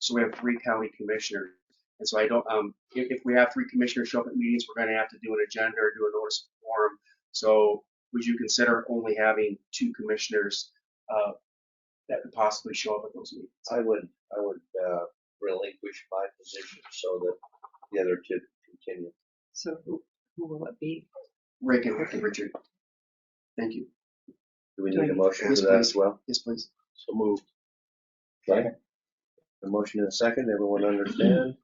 So we have three county commissioners. And so I don't, um, if, if we have three commissioners show up at meetings, we're gonna have to do an agenda or do a notice of forum. So would you consider only having two commissioners, uh, that could possibly show up at those meetings? I would, I would uh, relinquish my position so that the other two continue. So who, who will it be? Rick and and Richard. Thank you. Do we Do I need a need- motion Yes, for that as well? Yes, please. So moved. Okay. A motion and a second, everyone understand?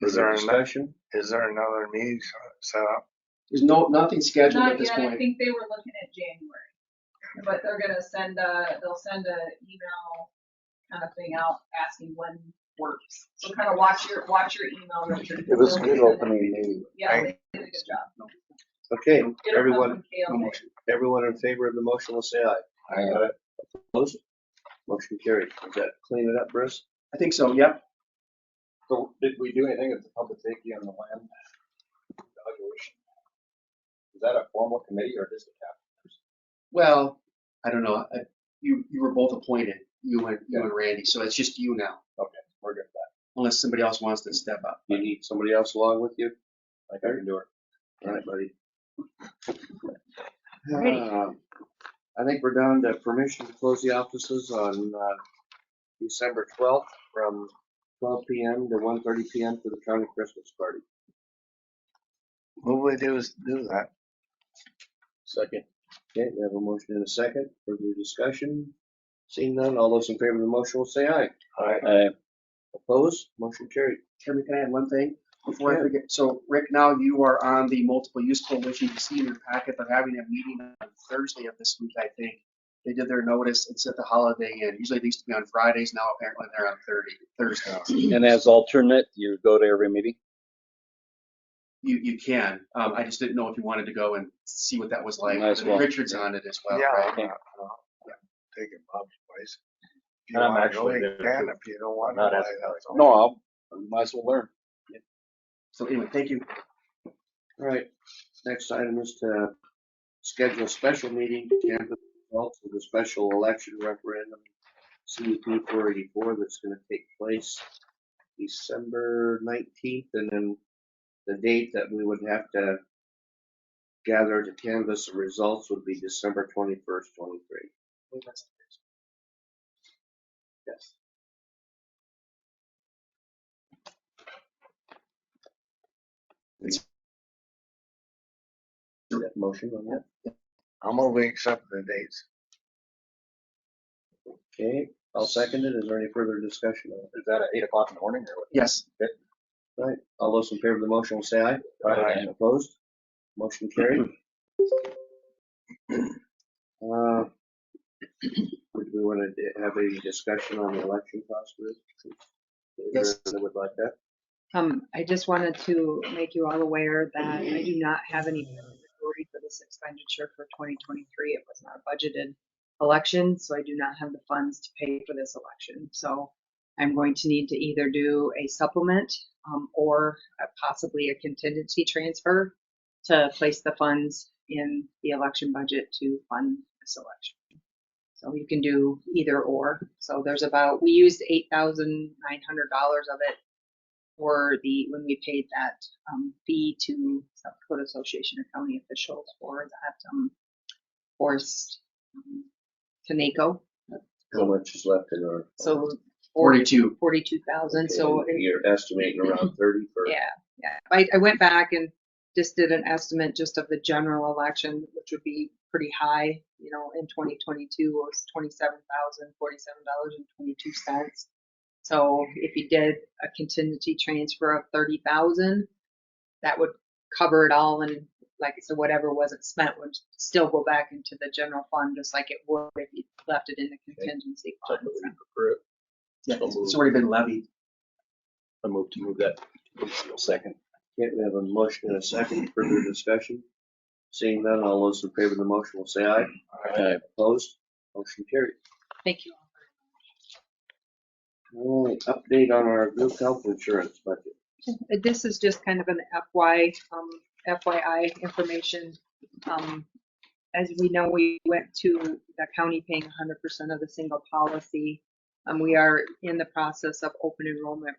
Is Further there an- discussion? Is there another meeting set up? There's no, nothing scheduled at Not this yet, I point. think they were looking at January, but they're gonna send a, they'll send a email kind of thing out asking when works. So kind of watch your, watch your email, Richard. It was a good opening meeting. Yeah, they did a good job. Okay, It'll come everyone, from Kale. No motion. everyone in favor of the motion will say aye. Aye. Opposed? Motion carried. Is that clean it up, Bruce? I think so, yep. So did we do anything at the public safety on the land evaluation? Is that a formal committee or just a cap? Well, I don't know. I- You, you were both appointed, you and, you and Randy, so it's just you now, We're good with unless somebody else wants to step up. You need somebody else along with you? that. Like I can do it. All right, buddy. Alrighty. Um, I think we're down to permission to close the offices on uh, December 12th from 12 PM to 1:30 PM for the county Christmas party. What would they do is do that? Second. Okay, we have a motion and a second. Further discussion? Seeing none, all those in favor of the motion will say aye. Aye. Opposed? Motion carried. Chairman, can I add one thing before I Yeah. forget? So Rick, now you are on the multiple use coalition. You see in your packet, they're having a meeting on Thursday of this week, I think. They did their notice and set the holiday in. Usually they used to be on Fridays, now apparently they're on Thursday, Thursdays. And as alternate, you go to every meeting? You, you can. Um, I just didn't know if you wanted to go and see what that was like. Might as And well. Richard's on it as well, Yeah, right? I'm not- uh, taking Bob's place. If you And I'm wanna actually go, you there can. too. If you don't want Not to, as- that's all. No, I'll, I might as well learn. So anyway, thank you. All right, next item is to schedule a special meeting to canvass the results of the special election referendum, CUP four eighty-four, that's gonna take place December nineteenth, and then the date that we would have to gather to canvass the results would be December twenty-first, twenty-three. Yes. Is that Motion on that? I'm only accepting the dates. Okay, I'll second it. Is there any further discussion on it? Is that at eight o'clock in the morning or what? Yes. Right, all those in favor of the motion will say aye. Aye. Opposed? Motion carried. Uh, Would we want to have any discussion on the election cost? Ruth? Is there Yes. anyone That would like that? Um, I just wanted to make you all aware that I do not have any authority for this expenditure for 2023. It was not a budgeted election, so I do not have the funds to pay for this election. So I'm going to need to either do a supplement um, or uh, possibly a contingency transfer to place the funds in the election budget to fund this election. So you can do either or. So there's about, we used $8,900 of it for the, when we paid that um, fee to South Dakota Association of County Officials for that um, forced um, Taneco. How much is left in our? uh, So Forty-two. forty-two thousand, so Okay, You're estimating around thirty for. yeah, yeah. I, I went back and just did an estimate just of the general election, which would be pretty high, you know, in twenty twenty-two was twenty-seven thousand, forty-seven dollars and twenty-two cents. So if you did a contingency transfer of thirty thousand, that would cover it all and like, so whatever wasn't spent would still go back into the general fund, just like it would if you left it in the contingency I fund. move So- to approve. Yeah, it's it's already been levied. I move to move that. Second. Okay, we have a motion and a second. Further discussion? Seeing none, all those in favor of the motion will say aye. Aye. Opposed? Motion carried. Thank you. Alright, update on our group health insurance budget. Uh, This is just kind of an FY, um, FYI information. Um, As we know, we went to the county paying hundred percent of the single policy Um, we are in the process of open enrollment